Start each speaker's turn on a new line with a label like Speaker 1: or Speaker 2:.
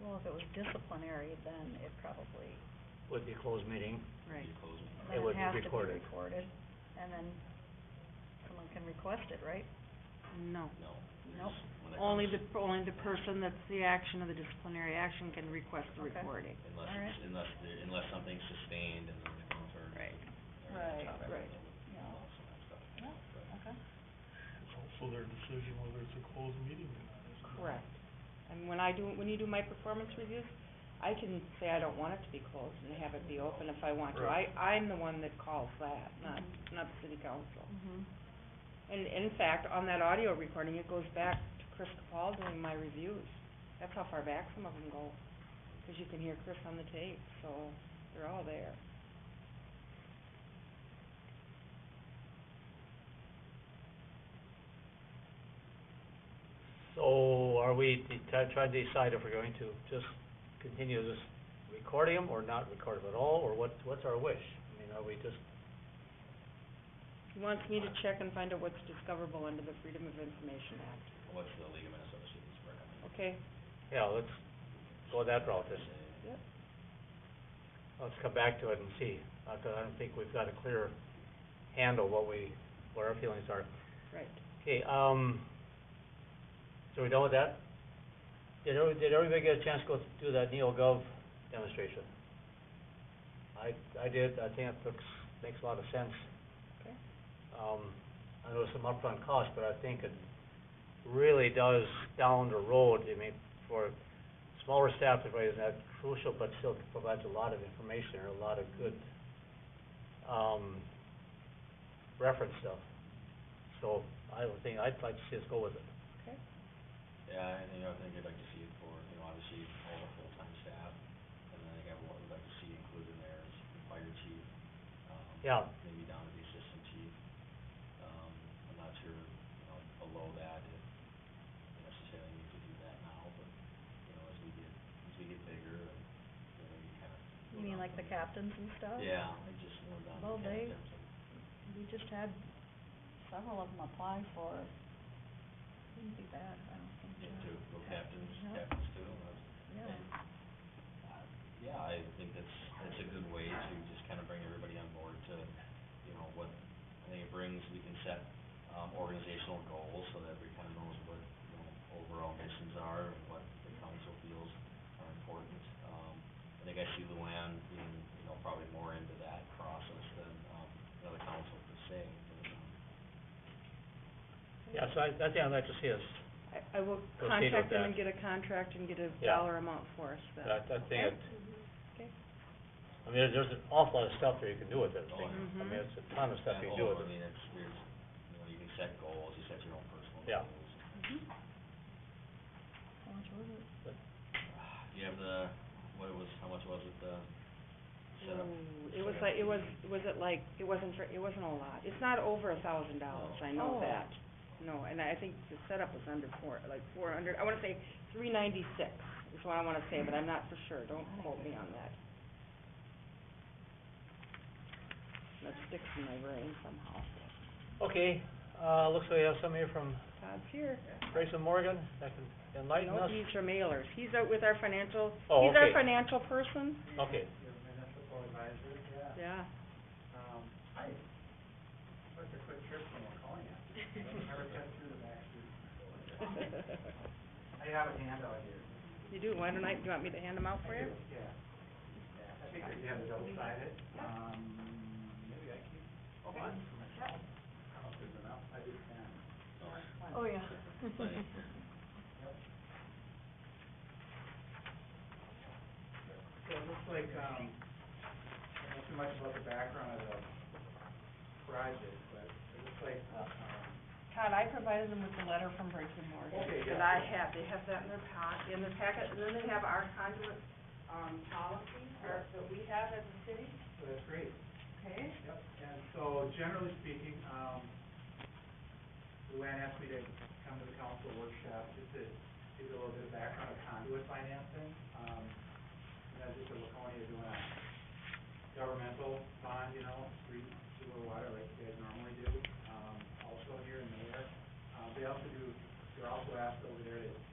Speaker 1: Well, if it was disciplinary, then it probably,
Speaker 2: would be a closed meeting.
Speaker 1: right,
Speaker 2: It
Speaker 1: then
Speaker 2: would
Speaker 1: it
Speaker 2: be
Speaker 1: has to be
Speaker 2: recorded.
Speaker 1: recorded, and then someone can request it, right?
Speaker 3: No.
Speaker 4: No.
Speaker 1: Nope.
Speaker 4: When it
Speaker 3: Only the,
Speaker 4: comes-
Speaker 3: only the person that's the action of the disciplinary action can request the
Speaker 1: Okay.
Speaker 3: recording.
Speaker 4: Unless,
Speaker 1: Alright.
Speaker 4: it's- unless, there- unless something's sustained and then it comes or.
Speaker 3: Right.
Speaker 4: or
Speaker 1: Right,
Speaker 4: topic
Speaker 1: right.
Speaker 4: and all
Speaker 1: Yeah,
Speaker 4: sorts of stuff. But-
Speaker 1: okay.
Speaker 5: It's also their decision whether it's a closed meeting or not. isn't it?
Speaker 3: Correct. And when I do, when you do my performance reviews, I can say I don't want it to be closed and have it be open if I want to. I, I'm the one that calls that, not, not the city council.
Speaker 1: Mhm.
Speaker 3: And in fact, on that audio recording, it goes back to Chris Capal doing my reviews. That's how far back some of them go, 'cause you can hear Chris on the tape, so they're all there.
Speaker 2: So are we de- try- trying to decide if we're going to just continue this recording 'em or not record 'em at all, or what, what's our wish? I mean, are we just,
Speaker 3: He wants me to check and find out what's discoverable under the Freedom of Information Act.
Speaker 4: What's the League of Minnesota Cities recommendation?
Speaker 3: Okay,
Speaker 2: yeah, let's go that route, just,
Speaker 3: Yep.
Speaker 2: let's come back to it and see. Uh, 'cause I don't think we've got a clear handle what we, what our feelings are.
Speaker 3: right.
Speaker 2: Okay, um, so we done with that? Did every, did everybody get a chance to go do that NeoGov demonstration? I, I did, I think it looks, makes a lot of sense.
Speaker 3: Okay.
Speaker 2: Um, I know some upfront cost, but I think it really does down the road, I mean, for smaller staff, it is not crucial, but still provides a lot of information or a lot of good, um, reference stuff. So I would think, I'd like to see us go with it.
Speaker 4: Yeah, and, you know, I think I'd like to see it for, you know, obviously all the full-time staff, and then I think I would like to see included in there is the fire chief, um.
Speaker 2: Yeah,
Speaker 4: Maybe down to the assistant chief, um, I'm not sure, you know, below that, if we necessarily need to do that now, but, you know, as we get, as we get bigger, and, you know, you kind of.
Speaker 1: You mean like the captains and stuff?
Speaker 4: Yeah, I just more down to
Speaker 1: Well,
Speaker 4: kind of
Speaker 1: they-
Speaker 4: terms of-
Speaker 1: We just had several of them apply for, it. wouldn't be bad, I don't think.
Speaker 4: Yeah,
Speaker 1: so.
Speaker 4: too, well, captains,
Speaker 1: Yeah.
Speaker 4: captains too, that's,
Speaker 1: Yeah,
Speaker 4: and, uh, yeah, I think that's, that's a good way to just kind of bring everybody on board to, you know, what, I think it brings, we can set, um, organizational goals so that everybody kind of knows what, you know, overall missions are and what the council feels are important. Um, I think I see Luann being, you know, probably more into that process than, um, you know, the council per se, but, um,
Speaker 2: yeah, so I, I think I'd like to see us,
Speaker 3: I, I will
Speaker 2: with
Speaker 3: contact them
Speaker 2: that.
Speaker 3: and get a contract and get a
Speaker 2: Yeah.
Speaker 3: dollar amount for us then.
Speaker 2: I, I think it,
Speaker 3: Mm-hmm, Okay.
Speaker 2: I mean, there's- there's an awful lot of stuff that you can do with it, I think. I mean,
Speaker 3: Mhm.
Speaker 2: it's a ton of stuff
Speaker 4: that
Speaker 2: you can do
Speaker 4: goal,
Speaker 2: with
Speaker 4: I
Speaker 2: it.
Speaker 4: mean, it's, there's, you know, you can set goals, you set your own personal
Speaker 2: Yeah.
Speaker 4: goals.
Speaker 1: how much was it?
Speaker 4: You have the, what it was, how much was it, the setup?
Speaker 3: Ooh, It was like, it was, was it like, it wasn't for, it wasn't a lot. It's not over a thousand dollars, I know
Speaker 1: Oh.
Speaker 3: that. No, and I think the setup was under four, like four hundred, I wanna say three ninety-six is what I wanna say, but I'm not for sure, don't quote me on that. That sticks in my brain somehow.
Speaker 2: Okay, uh, looks like we have somebody from
Speaker 3: Todd's here.
Speaker 2: Grayson Morgan that can enlighten
Speaker 3: No,
Speaker 2: us.
Speaker 3: these are mailers. He's out with our financial,
Speaker 2: Oh,
Speaker 3: he's our
Speaker 2: okay.
Speaker 3: financial person.
Speaker 2: Okay,
Speaker 3: Yeah.
Speaker 6: Um, I took a quick trip from Waconia. Never cut through the back street. I have a handout here.
Speaker 3: You do, why don't I, do you want me to hand them out for you?
Speaker 6: Yeah. Yeah, I figured you had a double sided. Um, maybe I can. Oh, mine for myself. I don't think enough. I did ten.
Speaker 1: Oh, yeah.
Speaker 6: So it looks like, um, I don't know too much about the background of the project, but it looks like, um,
Speaker 3: Todd, I provided them with the letter from Briggs and Morgan.
Speaker 6: Okay, yeah.
Speaker 3: That I have, they have that in their packet, in their packet, and then they have our conduit, um, policy, or that we have as a city,
Speaker 6: so that's great.
Speaker 3: okay?
Speaker 6: Yep, and so generally speaking, um, Luann asked me to come to the council workshop just to give you a little bit of background of conduit financing. Um, and that's just a Laconia doing a governmental bond, you know, street, sewer, water, like they normally do. Um, also here in there, uh, they also do, they're also asked over there to